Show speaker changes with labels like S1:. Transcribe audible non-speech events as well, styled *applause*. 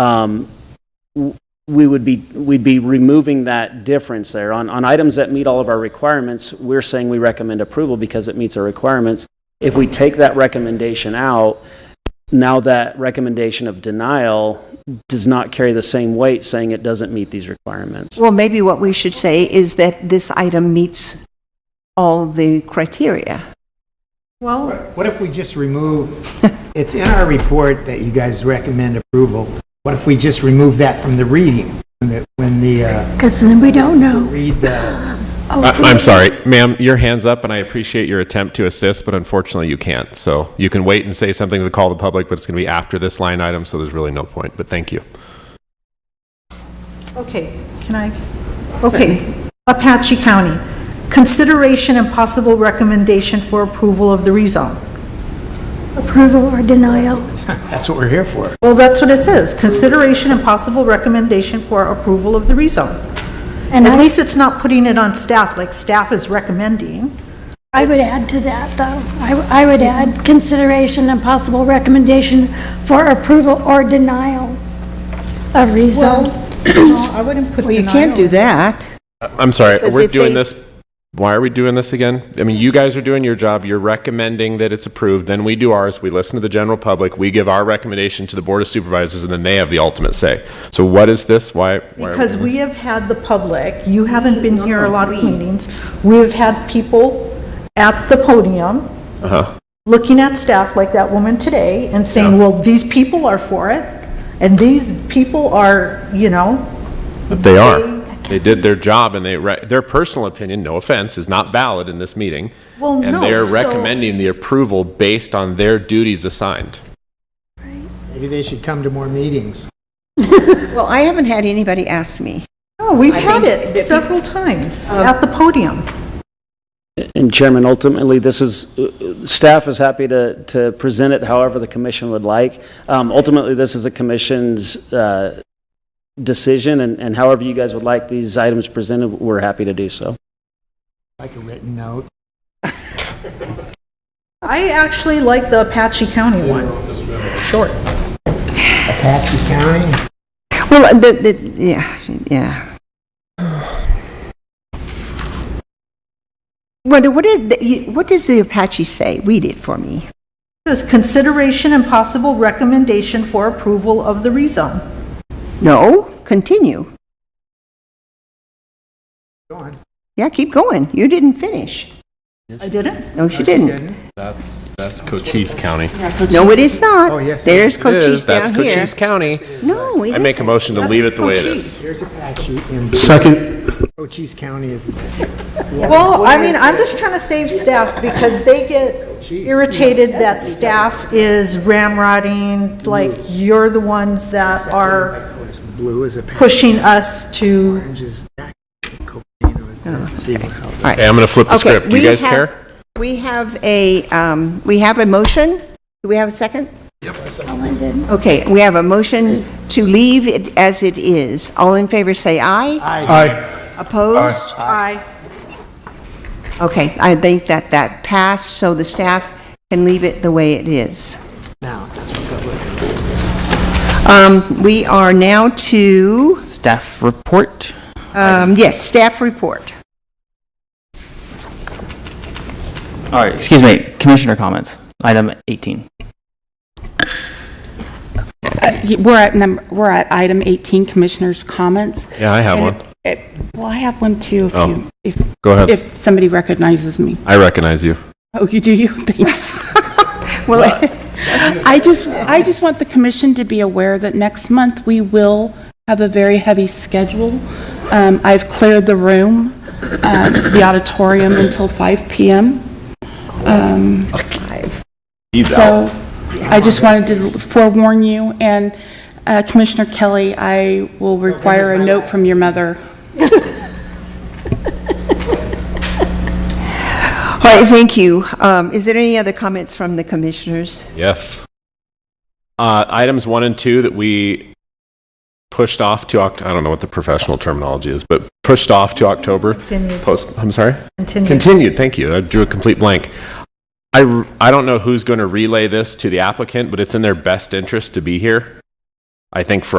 S1: um, w- we would be, we'd be removing that difference there. On, on items that meet all of our requirements, we're saying we recommend approval because it meets our requirements. If we take that recommendation out, now that recommendation of denial does not carry the same weight, saying it doesn't meet these requirements.
S2: Well, maybe what we should say is that this item meets all the criteria.
S3: Well,
S4: What if we
S2: *laughs*
S4: just remove, it's in our report that you guys recommend approval. What if we just remove that from the reading? When the, when the, uh,
S5: Because then we don't know.
S4: read the,
S5: Oh,
S6: I- I'm sorry, ma'am, your hand's up, and I appreciate your attempt to assist, but unfortunately, you can't. So you can wait and say something to the call of the public, but it's going to be after this line item, so there's really no point, but thank you.
S3: okay, can I? Okay, Apache County, consideration and possible recommendation for approval of the rezone.
S5: Approval or denial?
S4: that's what we're here for.
S3: Well, that's what it says, consideration and possible recommendation for approval of the rezone.
S5: And
S3: At
S5: I,
S3: least it's not putting it on staff, like staff is recommending.
S5: I would add to that, though. I, I would add consideration and possible recommendation for approval or denial of
S3: Well,
S5: rezone.
S3: no, I wouldn't put
S2: Well, you
S3: denial.
S2: can't do that.
S6: I- Uh, I'm sorry,
S2: Because
S6: we're
S2: if
S6: doing
S2: they-
S6: this, why are we doing this again? I mean, you guys are doing your job, you're recommending that it's approved, then we do ours, we listen to the general public, we give our recommendation to the Board of Supervisors, and then they have the ultimate say. So what is this? Why? why are
S3: Because
S6: doing
S3: we
S6: this?
S3: have had the public, you haven't been here a lot of meetings, we have had people at the podium
S6: Uh-huh.
S3: looking at staff like that woman today and saying, well, these people are for it, and these people are, you know,
S6: But They are. They did their job, and they, re- their personal opinion, no offense, is not valid in this meeting.
S3: Well, no,
S6: And they're
S3: so-
S6: recommending the approval based on their duties assigned.
S4: Maybe they should come to more meetings.
S2: Well, I haven't had anybody ask me.
S3: no, we've
S2: I
S3: had
S2: think
S3: it
S2: that- um,
S3: several times at the podium.
S1: And Chairman, ultimately, this is, uh, staff is happy to, to present it however the commission would like. Um, Ultimately, this is a commission's uh, decision, and and however you guys would like these items presented, we're happy to do so.
S4: Like a written note.
S3: I actually like the Apache County one. Short.
S4: Apache County,
S2: Well, the, the, yeah, yeah. Wonder, what is, the- you- what does the Apache say? Read it for me.
S3: This consideration and possible recommendation for approval of the rezone.
S2: No, continue.
S4: go on.
S2: Yeah, keep going. You didn't finish.
S3: I didn't?
S2: No, she didn't.
S6: That's, that's Cochise County.
S2: No, it is not.
S4: Oh, yes, it
S2: There's
S6: It is,
S2: Cochise down
S6: that's
S2: here.
S6: Cochise County.
S2: No, it
S6: I make a
S2: isn't.
S6: motion to leave it the way it
S3: Cochise.
S6: is.
S4: Here's Apache in.
S7: Second,
S4: Cochise County is the.
S3: Well, I mean, I'm just trying to save staff because they get irritated that staff is ramrodding, like, you're the ones that are
S4: Blue is Apache,
S3: pushing us to,
S4: orange is that, Coperino is that. See what helps.
S2: All right.
S6: Okay, I'm going to flip the
S2: Okay,
S6: script. Do you
S2: we
S6: guys
S2: have-
S6: care?
S2: We have a, um, we have a motion. Do we have a second? Yep. Okay, we have a motion to leave it as it is. All in favor, say aye.
S7: aye.
S2: Opposed?
S3: I,
S2: Okay, I think that that passed, so the staff can leave it the way it is.
S4: Now, that's what public.
S2: Um, We are now to,
S8: Staff report.
S2: um, yes, staff report.
S8: All right, excuse me, commissioner comments, item 18.
S9: We're at number, we're at item 18, Commissioners' Comments.
S6: Yeah, I have
S9: And
S6: one.
S9: it- it- Well, I have one too, if
S6: Oh.
S9: you, if,
S6: Go ahead.
S9: if somebody recognizes me.
S6: I recognize you.
S9: Oh, you do, *laughs* you, thanks.
S2: Well,
S9: I just, I just want the commission to be aware that next month, we will have a very heavy schedule. Um, I've cleared the room, um, the auditorium until 5 PM. Um, So I just wanted to forewarn you, and uh, Commissioner Kelly, I will require a note from your mother.
S2: all right, thank you. Um, Is there any other comments from the commissioners?
S6: Yes. Uh, items one and two that we pushed off to Oct, I don't know what the professional terminology is, but pushed off to October.
S3: Continued.
S6: Post, I'm sorry?
S3: continue.
S6: Continued, thank you. I drew a complete blank. I, r- I don't know who's going to relay this to the applicant, but it's in their best interest to be here. I think for